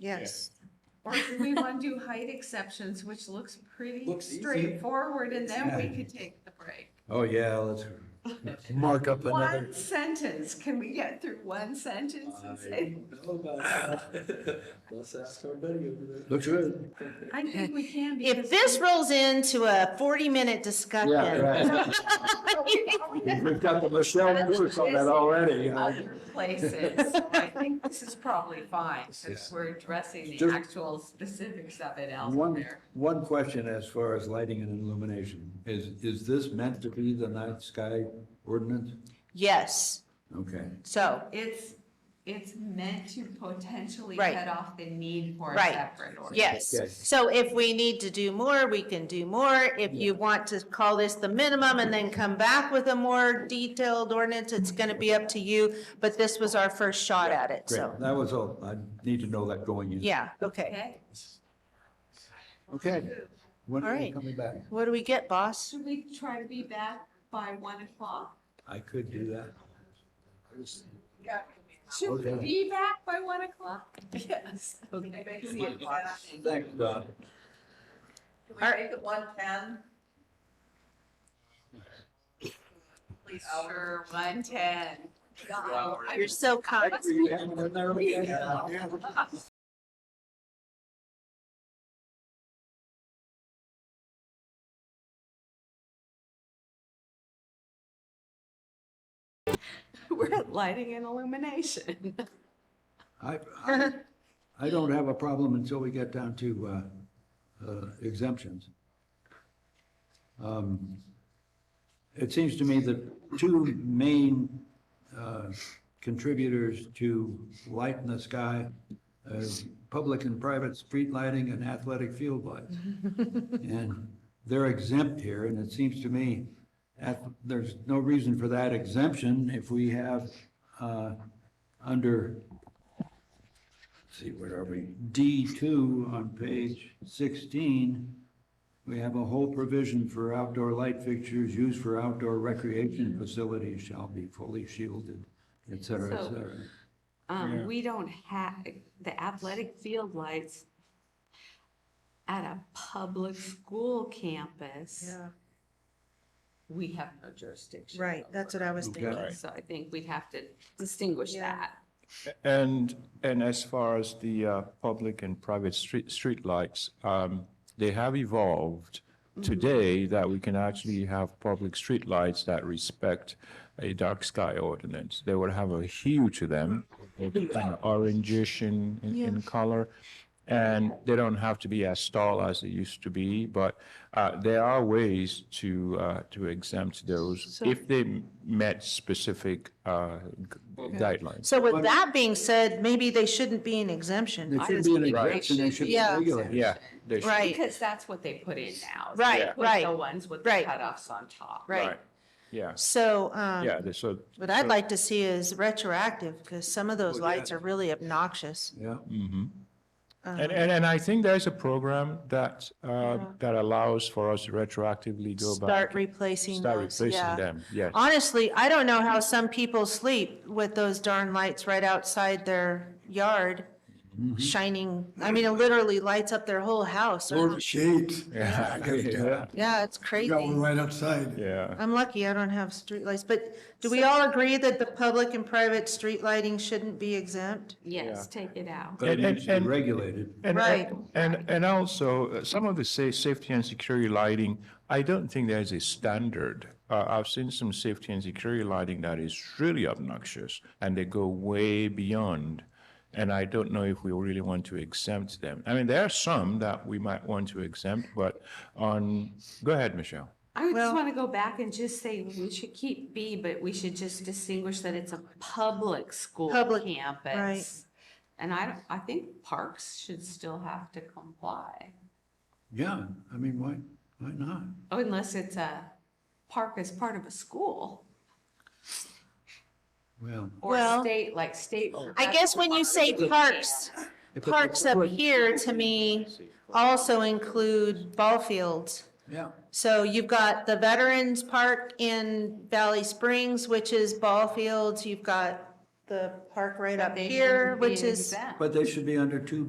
yes. Or do we want to do height exceptions, which looks pretty Looks easy. straightforward, and then we could take the break? Oh, yeah, let's mark up another. One sentence, can we get through one sentence I and say, don't know about that. Let's ask our buddy over there. Looks good. I think we can because. If this rolls into a forty-minute discussion, We've got the Michelle Lewis on that already, you know. Other places, I think this is probably fine, since Yeah. we're addressing the Just- actual specifics of it One, elsewhere. one question as far as lighting and illumination. Is, is this meant to be the night sky ordinance? yes, Okay, so, It's, it's meant to potentially Right. cut off the need for a Right. separate order. yes. Yes. So if we need to do more, we can do more. If you want to call this the minimum and then come back with a more detailed ordinance, it's gonna be up to you. But this was our first shot at it, great. so, That was all. I need to know that going in. yeah, okay. Okay, Okay. When All are you right. coming back? What do we get, boss? should we try to be back by one o'clock? I could do that. Should we Okay. be back by one o'clock? Yes. Okay. Thanks, Don. Can we make it one ten? Please, Sure, one ten. You're so kind. We're at lighting and illumination. I, I, I don't have a problem until we get down to, uh, uh, exemptions. Um, It seems to me that two main, uh, contributors to light in the sky, uh, public and private street lighting and athletic field lights. And they're exempt here, and it seems to me, at, there's no reason for that exemption if we have, uh, under see, where are we? D two on page sixteen, we have a whole provision for outdoor light fixtures used for outdoor recreation facilities shall be fully shielded, et cetera, et So- cetera. Yeah. Um, we don't have, the athletic field lights at a public school campus, we have no jurisdiction. Right, over. that's what I was Okay. thinking. Right. So I think we'd have to distinguish Yeah. that. And, and as far as the uh, public and private street, streetlights, um, they have evolved today that we can actually have public streetlights that respect a dark sky ordinance. They would have a hue to them, kind of orangish in, in- in color. And they don't have to be as tall as they used to be, but uh, there are ways to, uh, to exempt those if they met specific uh, gu- guidelines. So with that being said, maybe they shouldn't be an exemption. There should be an exemption, they should be Yeah. regulated. Yeah, they should. Right, Because that's what they put in now. They Right, put right, The ones with the right. cutoffs on top. right. Yeah, So, um, yeah, they- so. what I'd like to see is retroactive, because some of those Well, yeah. lights are really obnoxious. Yeah, Mhm. um, And, and, and I think there's a program that, uh, that allows for us to retroactively go Uh-huh. Start back. replacing Start those, replacing yeah. them, yes. Honestly, I don't know how some people sleep with those darn lights right outside their yard Mm-hmm. shining, I mean, it literally lights up their whole house. Or the shades. I gotta tell you. Yeah, Yeah, it's We crazy. Got one right outside. yeah. I'm lucky I don't have streetlights, but do we all agree that the public and private street lighting shouldn't be exempt? Yes, take it out. but it And- and- needs to be and- regulated. And, Right. and, and also, uh, some of the sa- safety and security lighting, I don't think there's a standard. Uh, I've seen some safety and security lighting that is really obnoxious, and they go way beyond. And I don't know if we really want to exempt them. I mean, there are some that we might want to exempt, but on, go ahead, Michelle. I would Well- just want to go back and just say we should keep B, but we should just distinguish that it's a public school Public, campus. And I, don't- I think parks should still have to comply, Yeah, I mean, why, why not? Oh, unless it's a park as part of a school Well, or Well- state, like state. I guess when you say parks, parks up here to me also include ball fields. yeah, So you've got the Veterans Park in Valley Springs, which is ball fields. You've got the park right up They here, shouldn't be which is. exempt. but they should be under two